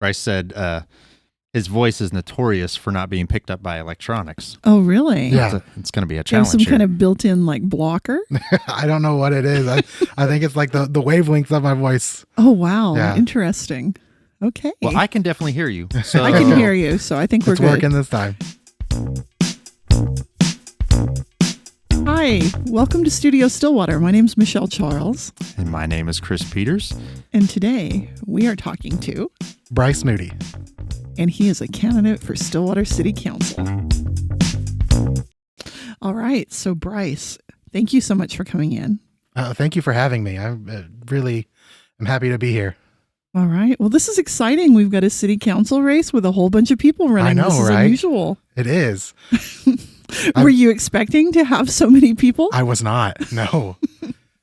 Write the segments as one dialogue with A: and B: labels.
A: Rice said uh, his voice is notorious for not being picked up by electronics.
B: Oh, really?
A: It's,
B: They
A: a- it's going to be a
B: have
A: challenge.
B: some
A: here.
B: kind of built-in like blocker.
C: I don't know what it is. I, I think it's like the, the wavelengths of my voice.
B: Oh, wow.
C: Yeah.
B: Interesting. Okay.
A: well, I can definitely hear you. So
B: I can hear you, so I think
C: It's
B: we're
C: working
B: good.
C: this time.
B: Hi, welcome to Studio Stillwater. My name's Michelle Charles,
A: And my name is Chris Peters.
B: and today we are talking to,
C: Bryce Moody.
B: and he is a candidate for Stillwater City Council. All right, so Bryce, thank you so much for coming in.
C: Uh, thank you for having me. I'm uh, really, I'm happy to be here.
B: All right. Well, this is exciting. We've got a city council race with a whole bunch of people running.
C: know,
B: this is
C: right?
B: unusual.
C: It is.
B: Were you expecting to have so many people?
C: I was not. No,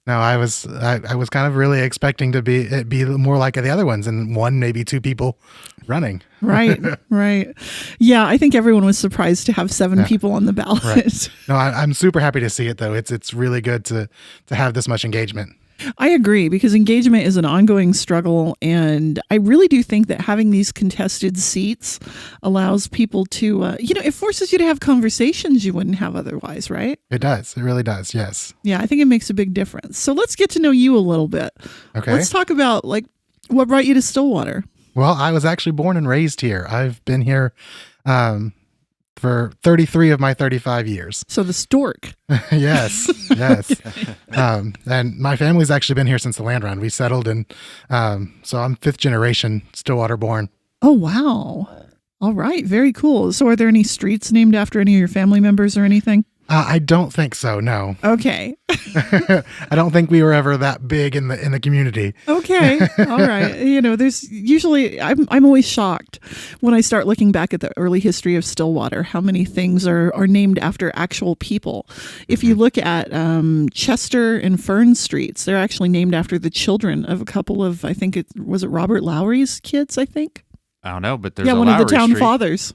C: no. I was. I, I was kind of really expecting to be it be more like the other ones, and one maybe two people running.
B: right, right. Yeah, I think everyone was surprised to have seven
C: Yeah.
B: people on the ballot.
C: No, I, I'm super happy to see it though. It's it's really good to to have this much engagement.
B: I agree because engagement is an ongoing struggle. And I really do think that having these contested seats allows people to, uh, you know, it forces you to have conversations you wouldn't have otherwise, right?
C: It does. It really does. Yes.
B: Yeah, I think it makes a big difference. So let's get to know you a little bit.
C: Okay.
B: Let's talk about like what brought you to Stillwater.
C: Well, I was actually born and raised here. I've been here um, for 33 of my 35 years.
B: So the stork.
C: yes, yes. um, and my family's actually been here since the land run. We settled, and um, so I'm fifth generation Stillwater born.
B: Oh, wow. All right. Very cool. So are there any streets named after any of your family members or anything?
C: Uh, I don't think so. No,
B: Okay.
C: I don't think we were ever that big in the in the community.
B: Okay. All right. You know, there's usually I'm I'm always shocked when I start looking back at the early history of Stillwater, how many things are are named after actual people. If
A: Hmm.
B: you look at um, Chester and Fern streets, they're actually named after the children of a couple of I think it was it Robert Lowry's kids, I think.
A: I don't know, but there's
B: yeah,
A: a
B: one of the
A: Lowry
B: town
A: Street.
B: fathers.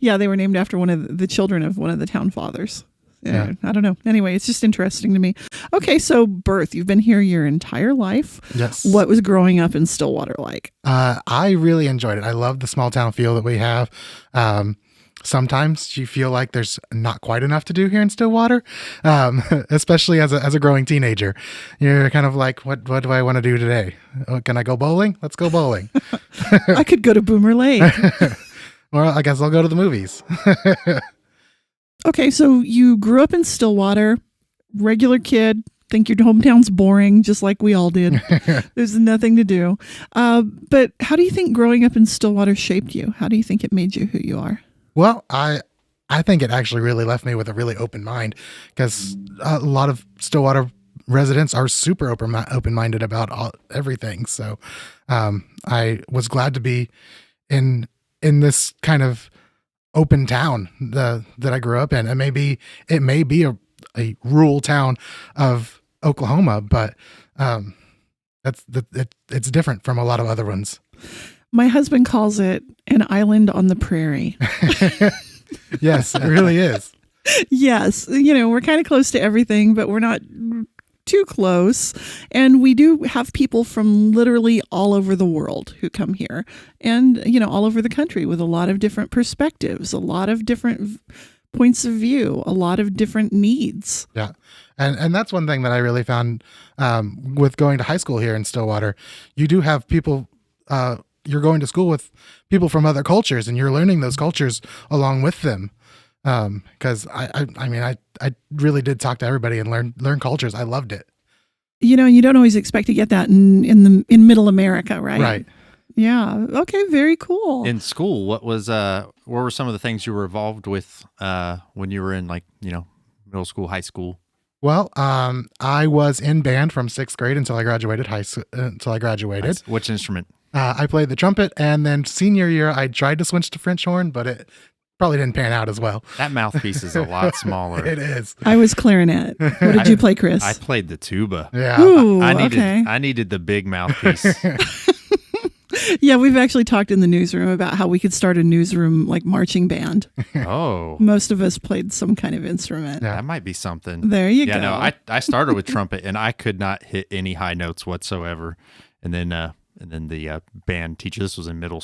B: Yeah, they were named after one of the, the children of one of the town fathers. Yeah,
C: Yeah.
B: I don't know. Anyway, it's just interesting to me. Okay, so birth, you've been here your entire life
C: Yes.
B: what was growing up in Stillwater like.
C: Uh, I really enjoyed it. I love the small town feel that we have. Um, sometimes you feel like there's not quite enough to do here in Stillwater, um, especially as a, as a growing teenager. You're kind of like, what what do I want to do today? Oh, Can I go bowling? Let's go bowling.
B: I could go to Boomer Lake.
C: or I guess I'll go to the movies.
B: Okay, so you grew up in Stillwater, regular kid, think your hometown's boring, just like we all did. There's nothing to do. Uh, but how do you think growing up in Stillwater shaped you? How do you think it made you who you are?
C: Well, I I think it actually really left me with a really open mind because a lot of Stillwater residents are super open open minded about all, everything. So um, I was glad to be in in this kind of open town the, that I grew up in. It may be it may be a, a rural town of Oklahoma, but um, that's that it, it's different from a lot of other ones.
B: My husband calls it an island on the prairie.
C: Yes, it really is.
B: yes, you know, we're kind of close to everything, but we're not too close. And we do have people from literally all over the world who come here and, you know, all over the country with a lot of different perspectives, a lot of different v- points of view, a lot of different needs.
C: Yeah, and and that's one thing that I really found um, with going to high school here in Stillwater. You do have people. Uh, you're going to school with people from other cultures, and you're learning those cultures along with them. Because I, I, I mean, I, I really did talk to everybody and learn learn cultures. I loved it.
B: You know, you don't always expect to get that in, in the in middle America, right?
C: Right.
B: Yeah. Okay, very cool.
A: In school, what was uh what were some of the things you were involved with uh when you were in like, you know, middle school, high school?
C: Well, um, I was in band from sixth grade until I graduated high s- uh, until I graduated.
A: Which instrument?
C: Uh, I played the trumpet, and then senior year I tried to switch to French horn, but it probably didn't pan out as well.
A: That mouthpiece is a lot smaller.
C: It is.
B: I was clarinet. What did you play, Chris?
A: I played the tuba.
C: Yeah.
B: Ooh,
A: I needed
B: okay.
A: I needed the big mouthpiece.
B: Yeah, we've actually talked in the newsroom about how we could start a newsroom like marching band.
A: oh.
B: Most of us played some kind of instrument.
A: That might be something.
B: There you
A: yeah,
B: go.
A: no, I, I started with trumpet and I could not hit any high notes whatsoever. And then uh and then the uh, band teacher, this was in middle